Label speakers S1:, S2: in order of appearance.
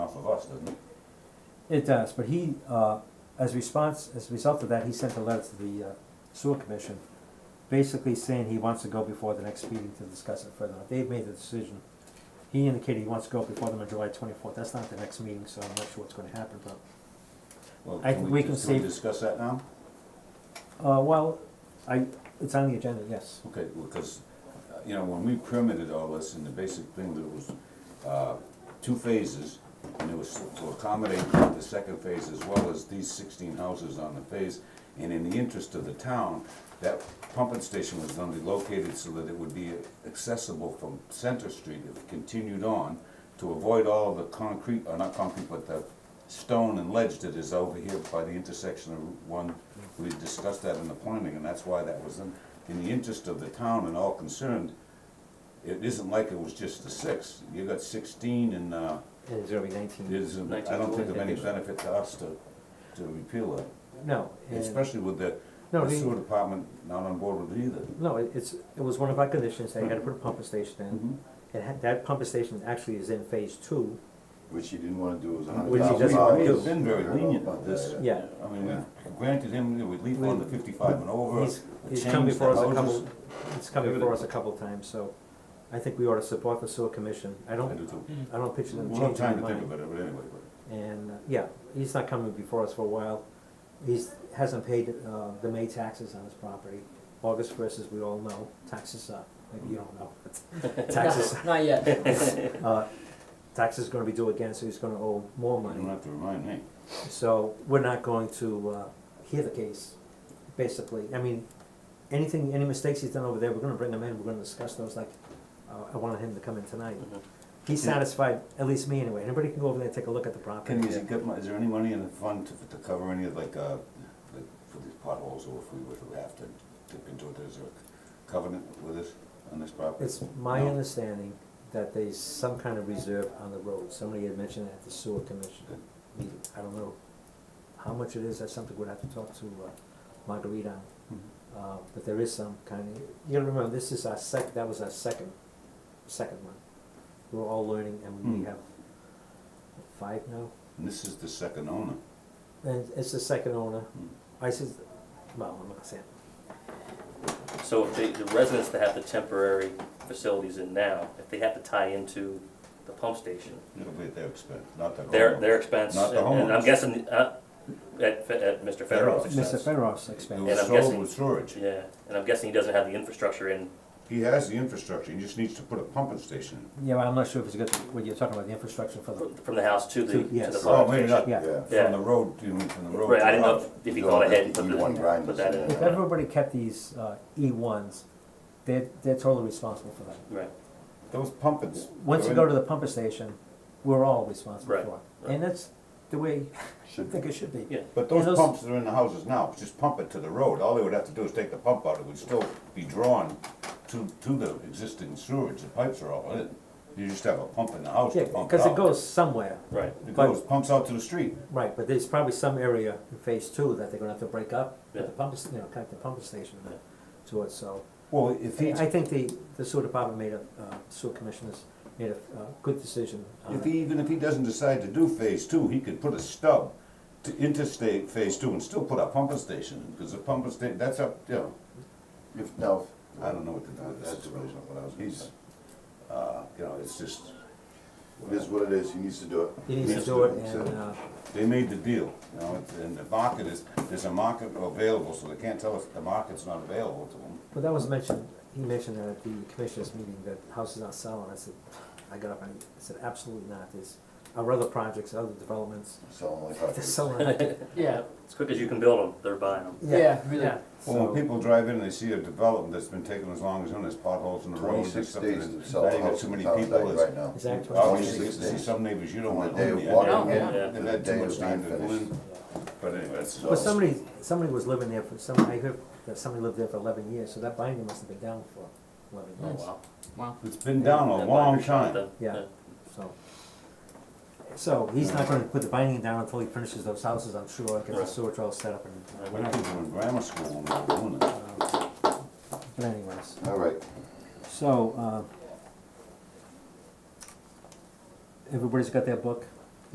S1: of us, doesn't it?
S2: It does, but he, uh, as response, as a result of that, he sent a letter to the uh, sewer commission, basically saying he wants to go before the next meeting to discuss it further. They've made the decision. He indicated he wants to go before them on July twenty-fourth. That's not the next meeting, so I'm not sure what's gonna happen, but,
S1: Well,
S2: I think we can
S1: just-
S2: save-
S1: we discuss that now?
S2: uh, well, I, it's on the agenda, yes.
S1: Okay, because, you know, when we permitted all this, and the basic thing that was, uh, two phases, and it was to accommodate the second phase as well as these sixteen houses on the phase, and in the interest of the town, that pumping station was gonna be located so that it would be accessible from Center Street if continued on, to avoid all the concrete, or not concrete, but the stone and ledge that is over here by the intersection of Route One. We discussed that in the planning, and that's why that was in, in the interest of the town and all concerned. It isn't like it was just the six, you got sixteen and, uh,
S2: And it's gonna be nineteen.
S1: there's, I don't think of any benefit to us to, to repeal it.
S2: No, and,
S1: Especially with the
S2: No,
S1: the
S2: he-
S1: sewer department not on board with it either.
S2: no, it- it's, it was one of our conditions. They had to put a pump station
S1: Mm-hmm.
S2: in. It had, that pump station actually is in phase two.
S3: Which he didn't wanna do was a
S2: Which
S3: hundred
S2: he
S3: thousand
S2: doesn't
S3: dollars.
S2: wanna do.
S1: We've been very lenient with this.
S2: Yeah.
S1: I mean, we've granted him the relief on the fifty-five and over,
S2: He's, he's come
S1: changed the
S2: before us a
S1: houses.
S2: couple, he's come before us a couple times, so I think we ought to support the sewer commission. I
S1: I do
S2: don't,
S1: too.
S2: I don't picture them
S1: We'll have
S2: changing their
S1: time to think
S2: mind.
S1: about it, but anyway,
S2: And, uh, yeah, he's not coming before us for a while. He's, hasn't paid, uh, the May taxes on his property. August first, as we all know, taxes are, maybe you don't know, but taxes,
S4: No, Not yet.
S2: uh, taxes gonna be due again, so he's gonna owe more
S1: you don't
S2: money.
S1: have to remind me.
S2: So we're not going to, uh, hear the case, basically. I mean, anything, any mistakes he's done over there, we're gonna bring them in, we're gonna discuss those, like, uh, I wanted him to come in tonight. He's satisfied, at least me anyway. Anybody can go over there and take a look at the property.
S1: Can, is it good, mo- is there any money in the fund to, to cover any of like, uh, like for these potholes, or if we were to have to dip into it, is there a covenant with us on this property?
S2: It's my
S1: No.
S2: understanding that there's some kind of reserve on the road. Somebody had mentioned that at the sewer commission meeting. I don't know how much it is. That's something we'd have to talk to uh, Marguerite on.
S1: Mhm.
S2: Uh, But there is some kind of, you gotta remember, this is our sec, that was our second, second one. We're all learning and we
S1: Hmm.
S2: have five now.
S1: And this is the second owner.
S2: And it's the second owner.
S1: Hmm.
S2: I says, well, I'm not gonna say it.
S4: So if they, the residents that have the temporary facilities in now, if they have to tie into the pump station,
S1: It'll be at their expense, not the
S4: their,
S1: homeowner.
S4: their expense,
S1: Not
S4: and
S1: the
S4: and
S1: homeowners.
S4: I'm guessing, uh, at, Fe- at Mr.
S1: Federoff's.
S4: Federer's
S2: Mr.
S4: expense.
S2: Federoff's
S1: It
S2: expense.
S4: And
S1: was
S4: I'm
S1: sold
S4: guessing-
S1: with storage.
S4: Yeah, and I'm guessing he doesn't have the infrastructure in,
S1: He has the infrastructure, he just needs to put a pumping station in.
S2: Yeah, but I'm not sure if it's good, what you're talking about, the infrastructure for the,
S4: fr- from the house to the,
S2: To-
S4: to
S2: yes.
S4: the
S1: Oh,
S4: pump
S1: maybe not,
S4: station.
S2: yeah.
S3: Yeah.
S1: from the road, you mean, from the road.
S4: Right,
S1: to
S4: I didn't
S1: the
S4: know
S1: house.
S4: if- if he gone ahead and put
S3: You E want
S4: the,
S3: grinders
S4: put that
S3: in
S4: in.
S2: If everybody kept these uh, E1s, they're, they're totally responsible for that.
S4: Right,
S1: Those pumpings.
S2: Once you go to the pumper station, we're all responsible
S4: Right,
S2: for it.
S4: right.
S2: And that's the way I
S3: Should
S2: think it should be.
S4: yeah.
S1: But
S2: and
S1: those
S2: those-
S1: pumps that are in the houses now, just pump it to the road, all they would have to do is take the pump out, it would still be drawn to, to the existing sewage, the pipes are all in it. You just have a pump in the house
S2: Yeah,
S1: to pump it
S2: because it
S1: out.
S2: goes somewhere.
S4: Right,
S1: It goes, pumps out to the street,
S2: Right, but there's probably some area in phase two that they're gonna have to break up, with the
S4: Yeah.
S2: pump, you know, connect the pumper station
S4: Yeah.
S2: to it, so.
S1: well, if he,
S2: I think the, the sewer department made a, uh, sewer commissioners made a uh, good decision. on
S1: if
S2: it.
S1: he, even if he doesn't decide to do phase two, he could put a stub to interstate phase two and still put a pumping station, in, because the pumping sta, that's up, you know,
S3: If, no.
S1: I don't know what to do with that
S3: That's
S1: situation, what I was gonna
S3: He's,
S1: say. Uh, you know, it's just,
S3: it is what it is, he needs to do it.
S2: He needs to
S1: Yes,
S2: do it
S3: that's
S2: and,
S3: it.
S2: uh,
S1: they made the deal, you know, it's- and the market is, there's a market available, so they can't tell us the market's not available to them.
S2: Well, that was mentioned, he mentioned that at the commissioners meeting that houses aren't selling, I said, I got up and I said, absolutely not, there's, our other projects, other developments,
S3: Selling like
S2: they're
S3: hotcakes.
S2: selling. it.
S5: Yeah,
S4: as quick as you can build them, they're buying them.
S5: yeah, really.
S2: Yeah.
S1: Well,
S2: So-
S1: when people drive in and they see a development that's been taking as long as, you know, there's potholes in the road, there's
S3: 26
S1: something,
S3: days to
S1: that's
S3: sell a
S1: not even
S3: house
S1: too
S3: in
S1: many
S3: the town
S1: people,
S3: tonight right
S1: it's,
S3: now.
S2: Is that
S1: oh,
S2: twenty
S1: you
S2: six?
S1: see-
S3: 26
S1: see
S3: days.
S1: some neighbors you don't
S3: From the
S1: want
S3: day
S1: to
S3: of
S1: live
S3: walking in
S5: Yeah.
S4: Yeah.
S3: to
S1: They've
S3: the
S1: had too
S3: day
S1: much
S3: of
S1: time
S3: being
S1: to go
S3: finished.
S1: in, but anyway, it's,
S2: But somebody, somebody was living there for some, I heard that somebody lived there for eleven years, so that binder must have been down for eleven
S4: Oh,
S2: years,
S4: wow.
S5: Wow.
S1: it's been down a
S4: That
S1: long
S4: binder shop
S1: time.
S4: then,
S2: Yeah. so. So he's not gonna put the binding down until he finishes those houses, I'm sure, gets the
S4: Right.
S2: sewer all set up and
S4: Yeah.
S1: My kids were in grammar school when we were doing it.
S2: uh, But anyways.
S3: All right,
S2: So, uh, everybody's got their book,